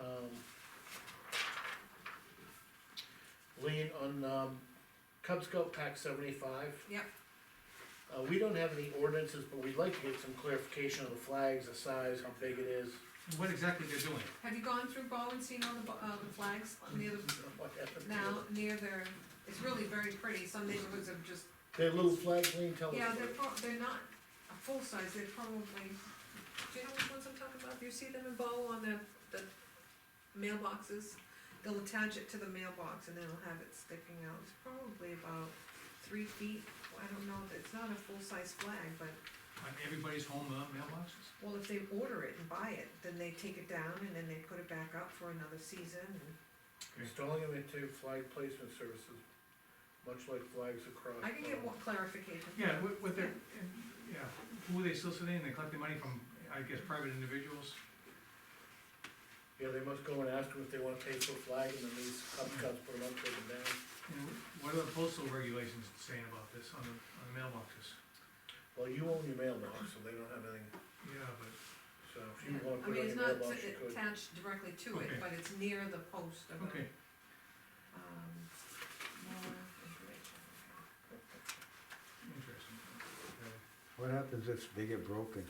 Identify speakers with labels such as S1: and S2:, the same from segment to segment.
S1: Um, on, um, Cub Scout Pack seventy-five.
S2: Yep.
S1: Uh, we don't have any ordinances, but we'd like to get some clarification of the flags, the size, how big it is.
S3: What exactly they're doing?
S2: Have you gone through Bow and seen all the, bo- uh, the flags near the,
S1: What happened to
S2: now,
S1: it?
S2: near their, it's really very pretty, some neighborhoods have just,
S1: Their little flag lean, tell us.
S2: yeah,
S1: about
S2: they're
S1: it.
S2: pro- they're not a full size, they're probably, do you know which ones I'm talking about? Do you see them in Bow on the, the mailboxes? They'll attach it to the mailbox and then it'll have it sticking out, it's probably about three feet, I don't know, it's not a full-size flag, but
S3: On everybody's home uh, mailboxes?
S2: Well, if they order it and buy it, then they take it down and then they put it back up for another season and
S1: Installing them into flag placement services, much like flags across.
S2: I can get
S1: um,
S2: more clarification.
S3: Yeah, what, what they're, yeah, who are they soliciting? They're collecting money from, I guess, private individuals?
S1: Yeah, they must go and ask them if they wanna pay for a flag, and then these Cub Scouts put them up, take them down.
S3: And what are the postal regulations saying about this on the, on the mailboxes?
S1: Well, you own your mailbox, so they don't have anything,
S3: Yeah, but, uh,
S1: so if you wanna
S2: I
S1: put it on
S2: mean,
S1: your
S2: it's not
S1: mailbox, you could.
S2: attached directly to
S3: Okay.
S2: it, but it's near the post of
S3: okay,
S2: the, um, more information.
S3: interesting. Okay.
S4: What happens if they get broken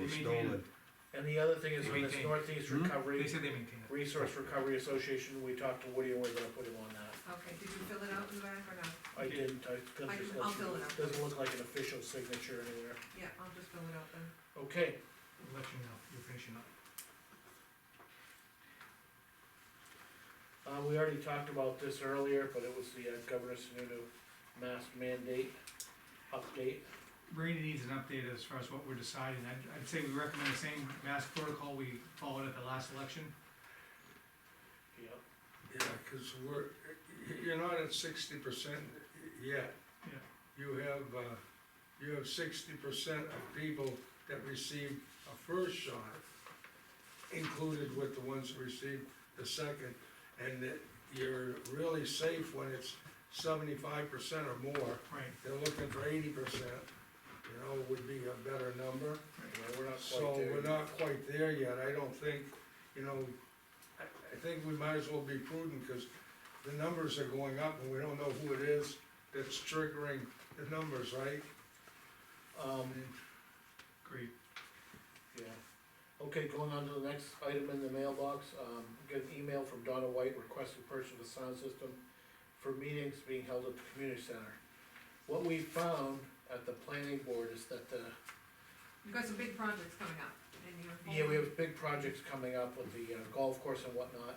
S3: They
S4: or
S3: maintain
S4: stolen?
S1: And the other thing is, on
S3: They
S1: this
S3: maintain.
S1: Northeast
S4: Hmm?
S3: They
S1: Recovery,
S3: said they maintain it.
S1: Resource Recovery Association, we talked to Woody and we're gonna put him on that.
S2: Okay, did you fill it out in the back or not?
S1: I
S3: Okay.
S1: didn't, I couldn't
S2: I
S1: just
S2: can-
S1: let
S2: I'll
S1: you,
S2: fill it out.
S1: doesn't look like an official signature anywhere.
S2: Yeah, I'll just fill it out then.
S1: Okay,
S3: We'll Let you know, you're finishing up.
S1: uh, we already talked about this earlier, but it was the uh, Governor Sununu mask mandate update.
S3: Brady needs an update as far as what we're deciding. I'd, I'd say we recommend the same mask protocol we followed at the last election.
S1: Yep.
S5: Yeah, cause we're, you're not at sixty percent yet.
S3: Yeah.
S5: You have, uh, you have sixty percent of people that received a first shot included with the ones that received the second, and that you're really safe when it's seventy-five percent or more.
S3: Right.
S5: They're looking for eighty percent, you know, would be a better number.
S1: Yeah, we're not
S5: So
S1: quite there.
S5: we're not quite there yet, I don't think, you know, I, I think we might as well be prudent, cause the numbers are going up and we don't know who it is that's triggering the numbers, right?
S1: Um,
S3: Great.
S1: yeah. Okay, going on to the next item in the mailbox, um, get an email from Donna White requesting purchase of a sound system for meetings being held at the community center. What we found at the planning board is that uh, the
S2: You've got some big projects coming up and you're.
S1: Yeah, we have big projects coming up with the uh, golf course and whatnot.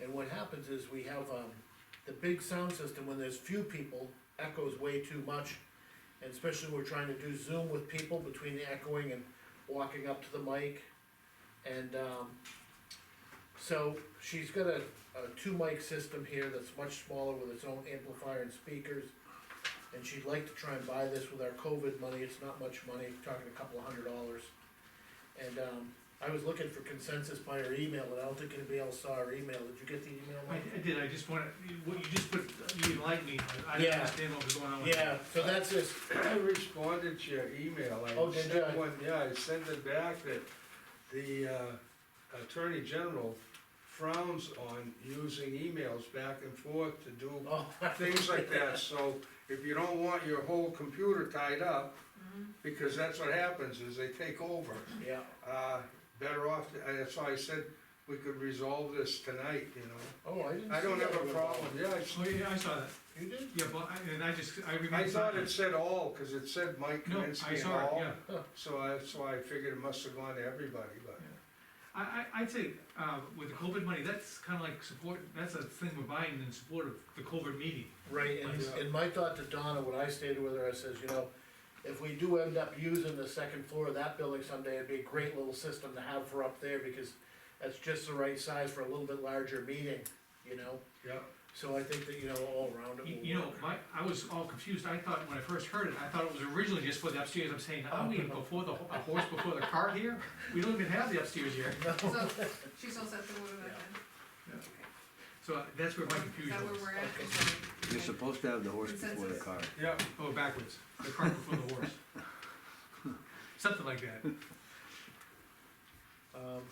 S1: And what happens is we have, um, the big sound system, when there's few people, echoes way too much. And especially we're trying to do Zoom with people between the echoing and walking up to the mic. And, um, so she's got a, a two mic system here that's much smaller with its own amplifier and speakers. And she'd like to try and buy this with our COVID money, it's not much money, talking a couple of hundred dollars. And, um, I was looking for consensus by her email, and I don't think anybody else saw her email, did you get the email?
S3: I,
S1: Mike?
S3: I did, I just wanted, what you just put, you enlightened me, I
S1: Yeah.
S3: didn't understand what was going on with that.
S1: Yeah, so that's this,
S5: I responded to your email,
S1: Oh,
S5: I
S1: did
S5: sent
S1: you?
S5: one, yeah, I sent it back that the uh, Attorney General frowns on using emails back and forth to do
S1: oh,
S5: things like that, so if you don't want your whole computer tied up,
S2: Mm-hmm.
S5: because that's what happens, is they take over.
S1: yeah,
S5: Uh, better off, uh, that's why I said we could resolve this tonight, you know?
S1: oh, I didn't
S5: I don't
S1: see
S5: have
S1: that
S5: a
S1: one.
S5: problem, yeah, I s-
S3: Oh, yeah, I saw that,
S1: You did?
S3: yeah, but, I- and I just, I remember.
S5: I thought it said all, cause it said Mike
S3: No, I
S5: Kaminsky and
S3: saw it,
S5: all,
S3: yeah.
S5: so I, so I figured it must have gone to everybody, but.
S3: I, I, I'd say, uh, with the COVID money, that's kinda like support, that's a thing we're buying in support of the COVID meeting.
S1: Right, and,
S5: Yeah.
S1: and my thought to Donna, when I stated with her, I says, you know, if we do end up using the second floor of that building someday, it'd be a great little system to have for up there, because that's just the right size for a little bit larger meeting, you know?
S5: Yeah.
S1: So I think that, you know, all around it
S3: You,
S1: will
S3: you know,
S1: work.
S3: my, I was all confused, I thought, when I first heard it, I thought it was originally just for the upstairs, I'm saying, are we before the, ho- a horse before the cart here? We don't even have the upstairs here,
S2: So, she's all set to order that then?
S3: Yeah.
S2: Okay.
S3: so that's where my
S2: Is that
S3: confusion
S2: where
S3: was.
S2: we're at?
S1: Okay.
S2: Okay.
S4: You're supposed to have the horse before the
S2: Consensus.
S4: car.
S5: Yeah,
S3: Oh, backwards, the cart before the horse. Something like that.
S1: Um,